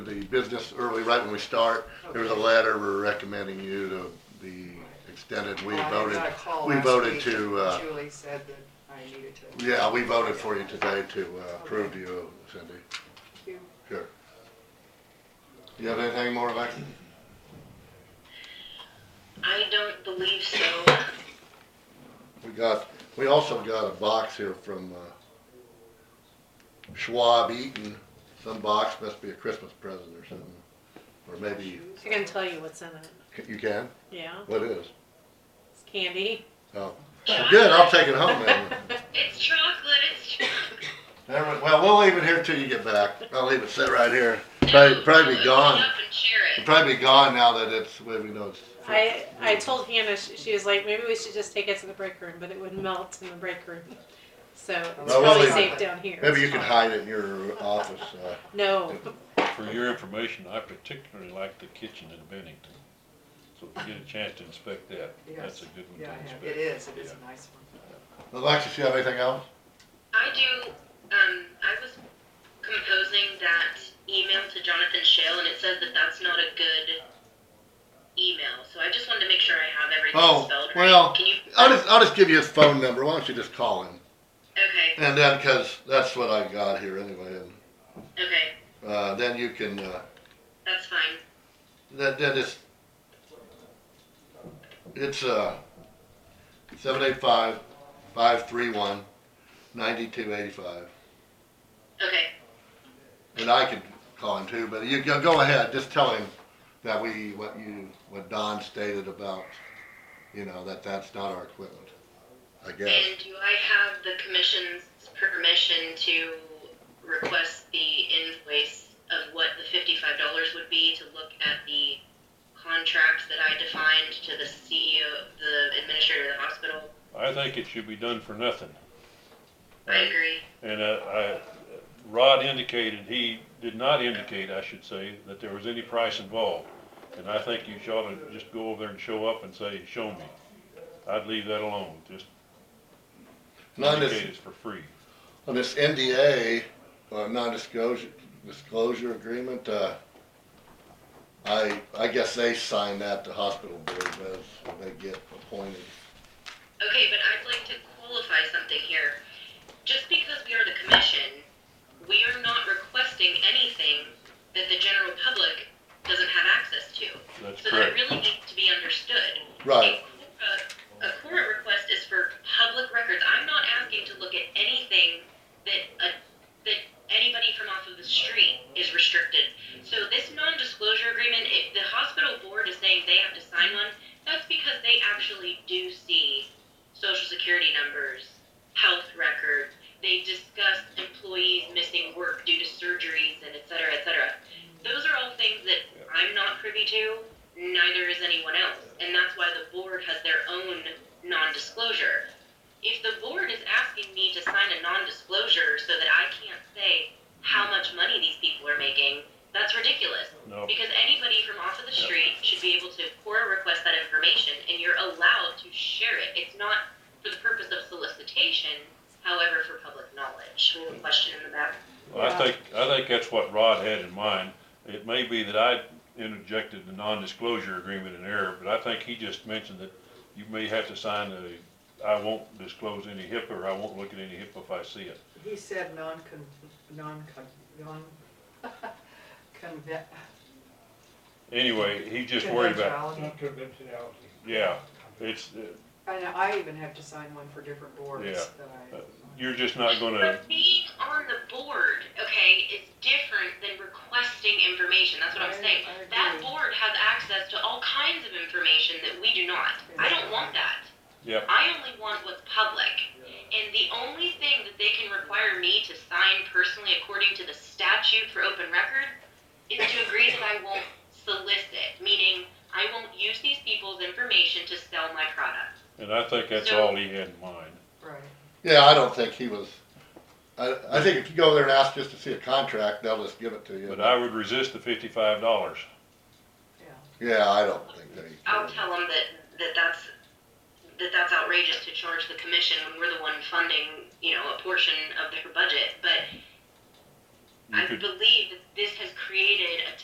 business early, right when we start, there was a letter we're recommending you to be extended. We I voted, got a call we last voted week to, and uh, Julie said that I needed to. yeah, we voted for you today to uh, approve you, Cindy. Thank you. Sure. You have anything more, Alexis? I don't believe so. We got, we also got a box here from uh, Schwab Eaton. Some box must be a Christmas present or something, or maybe I can tell you what's in it. you can. Yeah, What is? it's candy. Oh, Well, good. I'll take it home then. It's chocolate. It's chocolate. Never- Well, we'll leave it here till you get back. I'll leave it sit right here. Probably, probably be gone. Up and share It'll it. probably be gone now that it's well, we know it's. I I told Hannah she, she was like maybe we should just take it to the break room, but it would melt in the break room, so it's Well, probably we'll leave safe it. down here. Maybe you can hide it in your office. Uh, No, For your information, I particularly like the kitchen in Bennington. So if you get a chance to inspect that, that's a Yes. good one Yeah, to I have. inspect. it is, it is Yeah. a nice one. Alexis, you have anything else? I do. Um, I was composing that email to Jonathan Shale, and it says that that's not a good email. So I just wanted to make sure I have everything Oh, spelled right. well, Can you? I'll just, I'll just give you his phone number. Why don't you just call him? Okay. And then, because that's what I got here anyway, and Okay. uh, then you can, uh, That's fine. then, then it's, it's, uh, seven eight five, five three one, ninety-two eighty-five. Okay. And I could call him too, but you go, go ahead, just tell him that we, what you, what Don stated about, you know, that that's not our equipment, I guess. And do I have the commission's permission to request the invoice of what the fifty-five dollars would be to look at the contract that I defined to the CEO, the administrator of the hospital? I think it should be done for nothing. I agree. And uh, I, Rod indicated, he did not indicate, I should say, that there was any price involved. And I think you should ought to just go over there and show up and say, show me. I'd leave that alone, just Not indicate this- it's for free. On this NDA, uh, non-disclosure, disclosure agreement, uh, I, I guess they sign that, the hospital board does, when they get appointed. Okay, but I'd like to qualify something here. Just because we are the commission, we are not requesting anything that the general public doesn't have access to. That's So that correct. really needs to be understood. Right, uh, A a court request is for public records. I'm not asking to look at anything that, uh, that anybody from off of the street is restricted. So this non-disclosure agreement, if the hospital board is saying they have to sign one, that's because they actually do see social security numbers, health records. They discuss employees missing work due to surgeries and et cetera, et cetera. Those are all things that I'm not privy to neither is anyone else. And that's why the board has their own non-disclosure. If the board is asking me to sign a non-disclosure so that I can't say how much money these people are making, that's ridiculous. No, Because anybody from off of the street should be able to CORA request that information and you're allowed to share it. It's not for the purpose of solicitation, however, for public knowledge. Question in the back. Well, I think, I think that's what Rod had in mind. It may be that I interjected the non-disclosure agreement in error, but I think he just mentioned that you may have to sign a, I won't disclose any HIPAA, or I won't look at any HIPAA if I see it. He said non-con, non-con, non, conve- Anyway, he's just worried about, conventionality. Not conventionality. yeah, it's, uh, And I even have to sign one for different boards Yeah. that I. Uh, you're just not gonna, But being on the board, okay, is different than requesting information. That's what I'm I- saying. I That agree. board has access to all kinds of information that we do not. I don't want that. Yep. I only want what's public. And the only thing that they can require me to sign personally according to the statute for open record is to agree that I won't solicit, meaning I won't use these people's information to sell my product. and I think that's all he had in mind. Right. yeah, I don't think he was, I, I think if you go there and ask just to see a contract, they'll just give it to you. But I would resist the fifty-five dollars. Yeah, I don't think they. I'll tell them that, that that's, that that's outrageous to charge the commission when we're the one funding, you know, a portion of their budget, but You I could, believe that this has created a